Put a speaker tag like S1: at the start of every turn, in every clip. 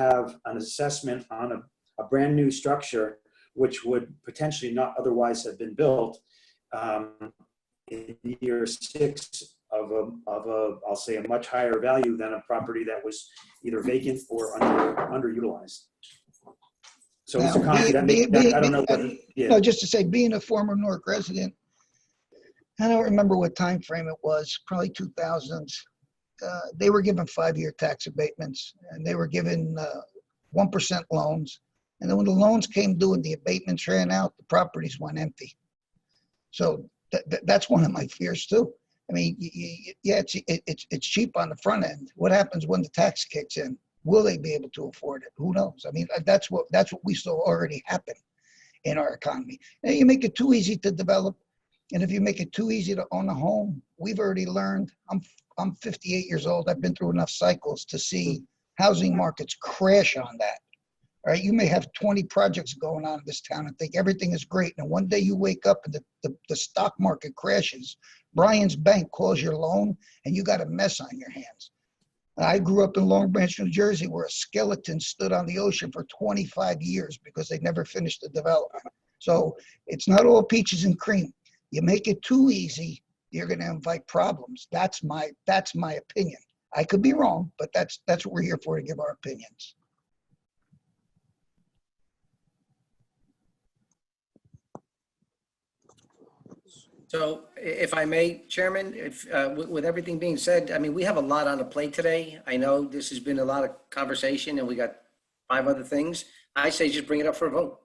S1: have an assessment on a, a brand new structure, which would potentially not otherwise have been built um, in year six of a, of a, I'll say a much higher value than a property that was either vacant or under, underutilized. So Mr.
S2: Now,
S1: Conti, that may-
S2: be-
S1: that-
S2: be-
S1: I don't know
S2: be-
S1: whether, yeah,
S2: No, just to say, being a former Newark resident, I don't remember what time frame it was, probably two thousands. Uh, they were given five-year tax abatements and they were given, uh, one percent loans. And then when the loans came due and the abatements ran out, the properties went empty. So that, that, that's one of my fears too. I mean, y- y- y- yeah, it's, it- it's, it's cheap on the front end. What happens when the tax kicks in? Will they be able to afford it? Who knows? I mean, uh, that's what, that's what we saw already happen in our economy. And you make it too easy to develop, and if you make it too easy to own a home, we've already learned. I'm I'm 58 years old. I've been through enough cycles to see housing markets crash on that. All right, you may have 20 projects going on in this town and think everything is great, and one day you wake up and the, the, the stock market crashes. Brian's bank calls your loan, and you got a mess on your hands. I grew up in Long Branch, New Jersey, where a skeleton stood on the ocean for 25 years because they never finished the development. So it's not all peaches and cream. You make it too easy, you're going to invite problems. That's my that's my opinion. I could be wrong, but that's that's what we're here for to give our opinions.
S3: So i- if I may, Chairman, if, uh, with with everything being said, I mean, we have a lot on the plate today. I know this has been a lot of conversation and we got five other things. I say just bring it up for a vote.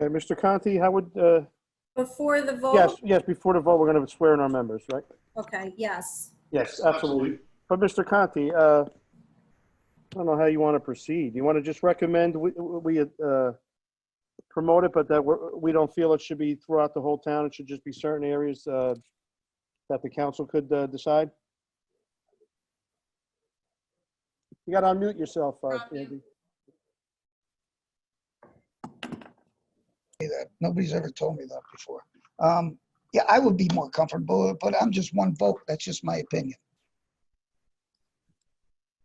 S4: Okay, Mr. Conti, how would, uh,
S5: Before the vote?
S4: yes, yes, before the vote, we're going to swear in our members, right?
S5: Okay, yes.
S4: Yes, absolutely. But Mr. Conti, uh, I don't know how you want to proceed. You want to just recommend we- we uh, promote it, but that we're- we don't feel it should be throughout the whole town? It should just be certain areas uh, that the council could uh, decide? You got to unmute yourself, uh,
S5: Unmute.
S4: Andy.
S2: Say that. Nobody's ever told me that before. Um, yeah, I would be more comfortable, but I'm just one vote. That's just my opinion.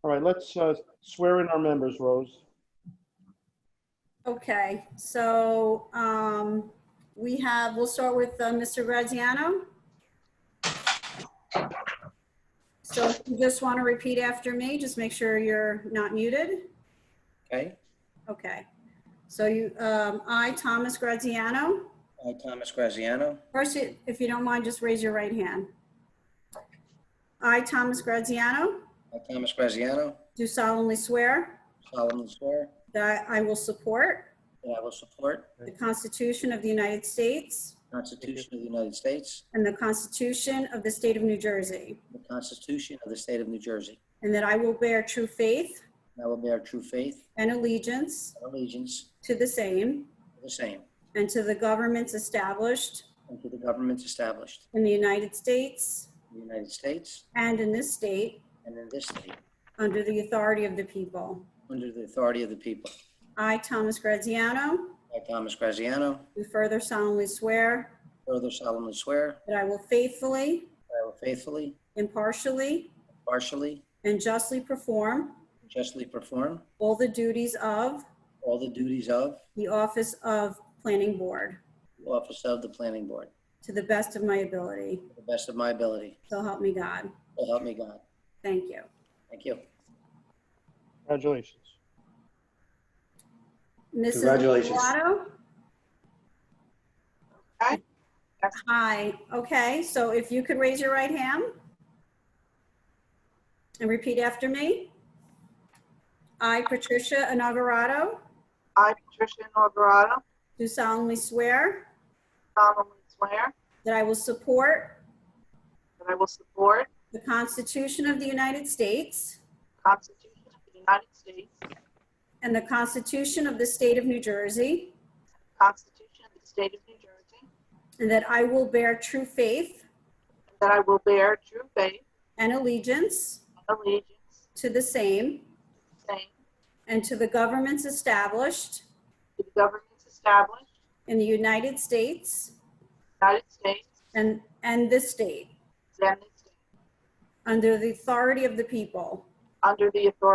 S4: All right, let's uh, swear in our members, Rose.
S5: Okay, so um, we have, we'll start with uh, Mr. Graziano. So if you just want to repeat after me, just make sure you're not muted.
S3: Okay?
S5: Okay. So you, um, I, Thomas Graziano.
S3: I, Thomas Graziano,
S5: First, i- if you don't mind, just raise your right hand. I, Thomas Graziano,
S3: I, Thomas Graziano,
S5: do solemnly swear
S3: solemnly swear
S5: that I will support
S3: that I will support
S5: the Constitution of the United States
S3: the Constitution of the United States,
S5: and the Constitution of the State of New Jersey,
S3: and the Constitution of the State of New Jersey,
S5: and that I will bear true faith
S3: and I will bear true faith
S5: and allegiance
S3: and allegiance
S5: to the same
S3: to the same
S5: and to the governments established
S3: and to the governments established
S5: in the United States
S3: in the United States
S5: and in this state
S3: and in this state,
S5: under the authority of the people.
S3: under the authority of the people.
S5: I, Thomas Graziano,
S3: I, Thomas Graziano,
S5: do further solemnly swear
S3: further solemnly swear
S5: that I will faithfully,
S3: that I will faithfully,
S5: impartially,
S3: partially,
S5: and justly perform
S3: and justly perform
S5: all the duties of
S3: all the duties of
S5: the office of Planning Board
S3: the office of the planning board
S5: to the best of my ability.
S3: to the best of my ability.
S5: So help me God.
S3: So help me God.
S5: Thank you.
S3: Thank you.
S4: Congratulations.
S5: Mrs.
S1: Congratulations.
S5: Lovato?
S6: Hi.
S5: Hi, okay, so if you could raise your right hand and repeat after me. I, Patricia Inaugurato,
S6: I, Patricia Inalberato,
S5: do solemnly swear
S6: solemnly swear
S5: that I will support
S6: that I will support
S5: the Constitution of the United States
S6: the Constitution of the United States, the
S5: and the Constitution of the State of New Jersey,
S6: Constitution of the State of New Jersey,
S5: and that I will bear true faith
S6: and that I will bear true faith
S5: and allegiance
S6: and allegiance
S5: to the same
S6: to the same,
S5: and to the governments established
S6: to the governments established
S5: in the United States
S6: in the United States
S5: and, and this state,
S6: and this state,
S5: under the authority of the people.
S6: under the authority